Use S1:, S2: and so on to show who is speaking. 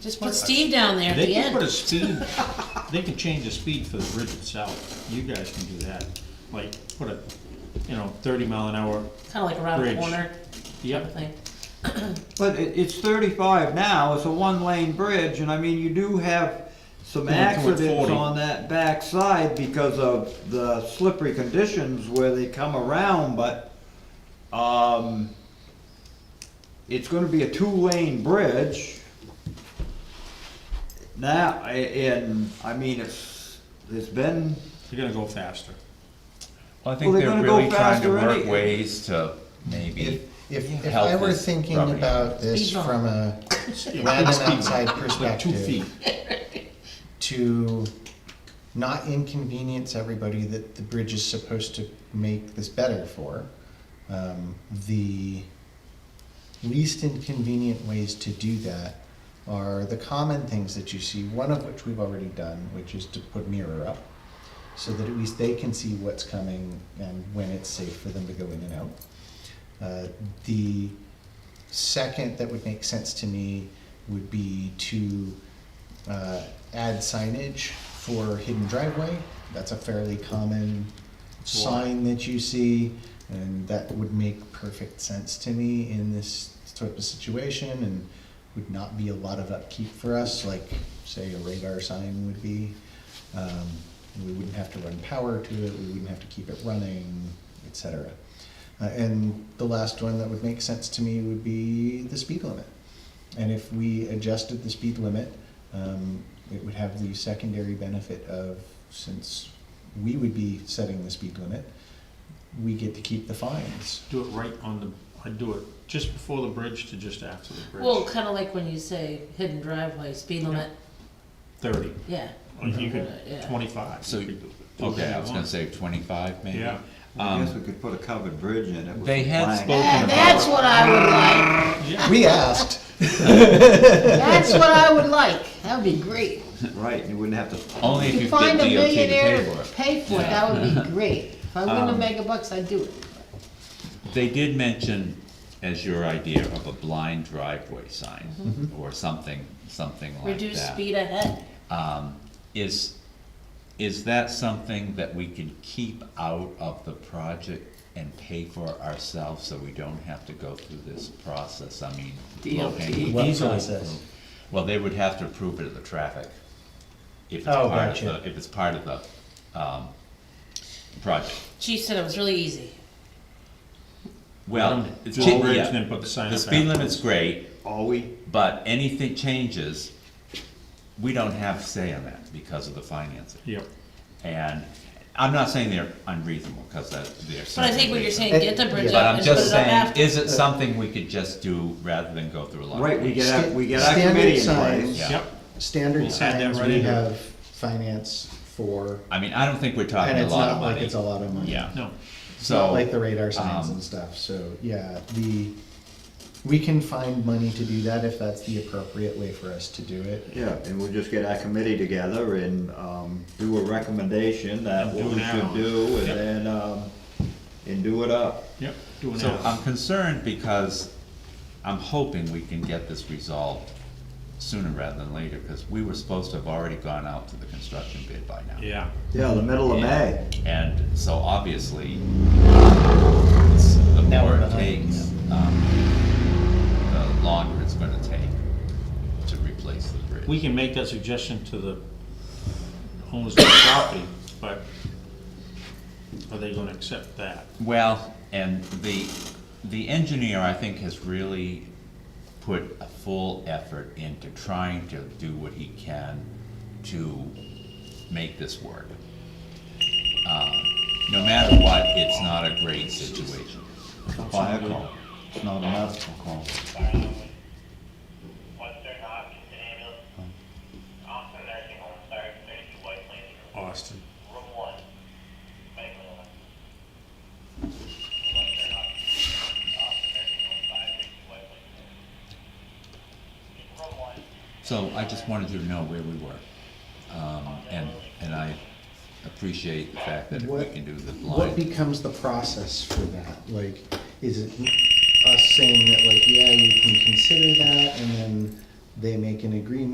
S1: Just put Steve down there at
S2: They
S1: the
S2: can put a
S1: end.
S2: speed, they can change the speed for the bridge itself, you guys can do that, like, put a, you know, thirty mile an hour,
S1: Kinda like around the
S2: bridge.
S1: corner type of
S2: yep,
S1: thing.
S3: But it, it's thirty-five now, it's a one-lane bridge, and I mean, you do have some
S2: Going towards
S3: accidents
S2: 40.
S3: on that backside because of the slippery conditions where they come around, but, um, it's gonna be a two-lane bridge. Now, a- and, I mean, it's, it's been,
S2: you're gonna go faster.
S4: Well,
S3: Well,
S4: I think
S3: they're
S4: they're
S3: gonna go
S4: really trying to
S3: faster
S4: work
S3: any-
S4: ways to maybe
S5: If, if, if
S4: help
S5: I were
S4: this
S5: thinking
S4: property owner.
S5: about this
S1: Speed bump.
S5: from a
S2: Yeah,
S5: Rather
S2: it's
S5: than
S2: speed,
S5: outside
S2: Like two
S5: perspective.
S2: feet,
S5: to not inconvenience everybody that the bridge is supposed to make this better for. Um, the least inconvenient ways to do that are the common things that you see, one of which we've already done, which is to put mirror up so that at least they can see what's coming and when it's safe for them to go in and out. Uh, the second that would make sense to me would be to uh, add signage for hidden driveway. That's a fairly common sign that you see, and that would make perfect sense to me in this type of situation and would not be a lot of upkeep for us, like, say, a radar sign would be. Um, We wouldn't have to run power to it, we wouldn't have to keep it running, et cetera. Uh, And the last one that would make sense to me would be the speed limit. And if we adjusted the speed limit, um, it would have the secondary benefit of, since we would be setting the speed limit, we get to keep the fines.
S2: do it right on the, I'd do it just before the bridge to just after the
S1: Well,
S2: bridge,
S1: kinda like when you say hidden driveway, speed limit,
S2: thirty,
S1: yeah.
S2: Or you could,
S1: uh, Yeah.
S2: twenty-five,
S4: So,
S2: you could do do
S4: Okay, I
S2: whatever
S4: was
S2: you
S4: gonna
S2: want.
S4: say twenty-five maybe?
S2: Yeah.
S3: I guess
S4: Um,
S3: we could put a covered bridge in it. with
S4: They
S3: some
S4: had
S3: planks.
S4: spoken
S1: And that's what I would like,
S2: Yeah,
S5: We asked,
S1: that's what I would like, that would be great.
S3: Right, you wouldn't have to.
S4: Only if
S1: If
S4: you
S1: you
S4: could get
S1: find a
S4: DOT to
S1: millionaire
S4: pay for
S1: to
S4: it. Um,
S1: pay for it, that would be great. If I'm gonna make a bucks, I'd do it.
S4: They did mention as your idea of a blind driveway sign
S5: Mm-hmm.
S4: or something, something like that.
S1: Reduce speed ahead.
S4: Um, is, is that something that we can keep out of the project and pay for ourselves so we don't have to go through this process? I mean.
S1: DOT.
S5: E
S4: low-hanging
S5: What
S4: fruit.
S5: process?
S4: Well, they would have to approve it at the traffic. If it's
S5: Oh,
S4: part of
S5: gotcha.
S4: the, if it's part of the, um, project.
S1: Chief said it was really easy.
S4: Well,
S2: Um,
S4: it's,
S2: do the bridge
S4: yeah,
S2: and then put the sign
S4: the
S2: up
S4: speed limit's
S2: afterwards.
S4: great,
S3: All we,
S4: but anything changes, we don't have say on that because of the financing.
S2: yep,
S4: And I'm not saying they're unreasonable, because that, they're.
S1: But I think what you're saying, get the bridge
S4: But
S1: up
S4: I'm
S1: and put
S4: just
S1: it up
S4: saying,
S1: after.
S4: is it something we could just do rather than go through a lot of?
S3: right, we get our, we get our
S5: Standard
S3: committee in
S5: signs.
S3: place.
S4: Yeah.
S2: yep, We'll
S5: standard
S2: add that
S5: signs,
S2: right
S5: we
S2: in here.
S5: have finance for,
S4: I mean, I don't think we're talking
S5: and
S4: a
S5: it's
S4: lot of
S5: not like
S4: money.
S5: it's a lot of money.
S4: Yeah,
S2: no,
S5: It's not
S4: so,
S5: like the radar signs
S4: um,
S5: and stuff, so, yeah, the, we can find money to do that if that's the appropriate way for us to do it.
S3: Yeah, and we'll just get our committee together and, um, do a recommendation that
S2: And
S3: what
S2: do
S3: we
S2: an
S3: should
S2: hour.
S3: do, and
S2: Yep.
S3: then, um, and do it up.
S2: yep, do an
S4: so um,
S2: hour.
S4: I'm concerned because I'm hoping we can get this resolved sooner rather than later, because we were supposed to have already gone out to the construction bid by now.
S2: yeah,
S3: Yeah, the middle of May.
S4: And- And so obviously, it's- the
S5: Now
S4: more
S5: we're
S4: it
S5: behind,
S4: takes, um, the longer it's gonna take to replace the bridge.
S2: we can make that suggestion to the owners of the property, but are they gonna accept that?
S4: Well, and the, the engineer, I think, has really put a full effort into trying to do what he can to make this work. Um, No matter what, it's not a great situation.
S3: Fire call. It's not a medical call.
S6: Western Austin ambulance. Austin nursing home, sorry, thirty-two White Plains,
S2: Austin,
S6: room one. Medical illness. Western Austin, Austin nursing home, five, thirty-two White Plains. Room one.
S4: So I just wanted you to know where we were. Um, and, and I appreciate the fact that if we
S5: What-
S4: can do the blind,
S5: What becomes the process for that? Like, is it us saying that like, yeah, you can consider that, and then they make an agreement